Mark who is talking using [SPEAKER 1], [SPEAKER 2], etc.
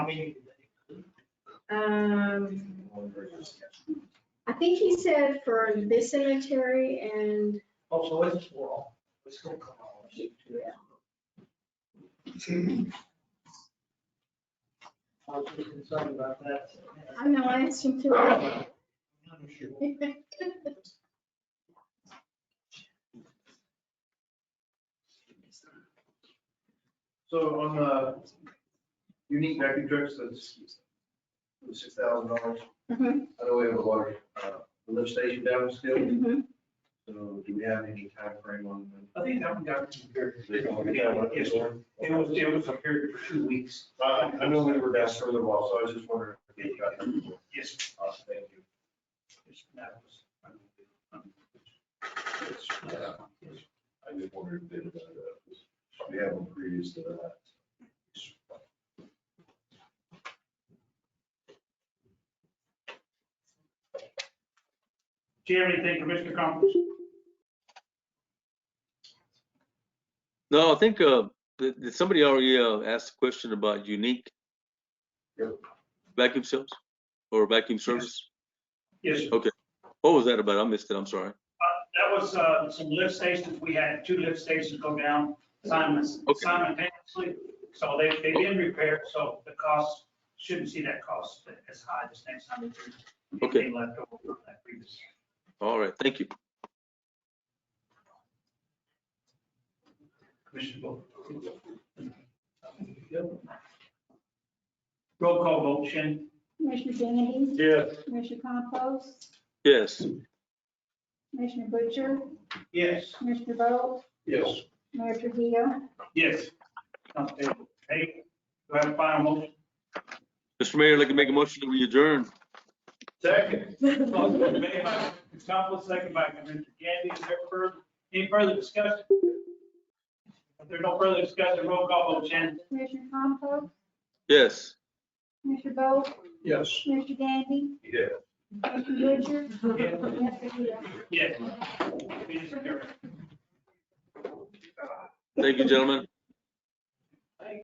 [SPEAKER 1] I mean,
[SPEAKER 2] Um, I think he said for this cemetery and,
[SPEAKER 1] oh, so it's all, it's gonna come out. I was just concerned about that.
[SPEAKER 2] I know, I asked him to.
[SPEAKER 1] Not sure.
[SPEAKER 3] So on the unique vacuum trucks, that's the six thousand dollars.
[SPEAKER 2] Mhm,
[SPEAKER 3] I know we have a large, uh, lift station down still,
[SPEAKER 4] Mm-hmm.
[SPEAKER 2] mhm.
[SPEAKER 3] so do we have any time frame on the?
[SPEAKER 1] I think that one got compared.
[SPEAKER 3] They don't-
[SPEAKER 1] Yes, sir. It was, it was compared for two weeks.
[SPEAKER 3] Uh, I know we were down further while, so I was just wondering if you got them.
[SPEAKER 1] Yes.
[SPEAKER 3] Uh, thank you.
[SPEAKER 1] That was- um,
[SPEAKER 3] Yeah, I just wondered if they, had, uh, we have them previous to that.
[SPEAKER 1] Do you have anything, Commissioner Combs?
[SPEAKER 5] No, I think, uh, th- th- somebody already, uh, asked a question about unique
[SPEAKER 3] Yep.
[SPEAKER 5] vacuum seals or vacuum service.
[SPEAKER 1] Yes, sir.
[SPEAKER 5] What was that about? I missed it. I'm sorry.
[SPEAKER 1] That was uh, some lift stations, we had two lift stations go down simultaneously.
[SPEAKER 5] Okay.
[SPEAKER 1] simultaneously. So they, they've been repaired, so the cost, shouldn't see that cost as high this next time. if there's
[SPEAKER 5] Okay.
[SPEAKER 1] anything left over from that previous.
[SPEAKER 5] All right, thank you.
[SPEAKER 1] Commissioner Bo- Roll call vote, Shannon.
[SPEAKER 4] Commissioner Kennedy,
[SPEAKER 3] Yes.
[SPEAKER 4] Commissioner Compost,
[SPEAKER 5] Yes,
[SPEAKER 4] Commissioner Butcher,
[SPEAKER 1] Yes.
[SPEAKER 4] Commissioner Bolt,
[SPEAKER 3] Yes.
[SPEAKER 4] Mayor Trujillo.
[SPEAKER 1] Yes. Okay, hey, do I have a final motion?
[SPEAKER 5] Mr. Mayor, I'd like to make a motion to adjourn.
[SPEAKER 3] Second.
[SPEAKER 1] Motion made by Commissioner Coppell, second by Commissioner Gandy. Is there further, any further discussion? If there's no further discussion, roll call vote, Shannon.
[SPEAKER 4] Commissioner Compost,
[SPEAKER 5] Yes.
[SPEAKER 4] Commissioner Bolt,
[SPEAKER 3] Yes.
[SPEAKER 4] Commissioner Gandy,
[SPEAKER 3] Yeah.
[SPEAKER 4] Commissioner Butcher,
[SPEAKER 1] Yes.
[SPEAKER 4] Mayor Trujillo.
[SPEAKER 1] Yes. It is carried.
[SPEAKER 5] Thank you, gentlemen.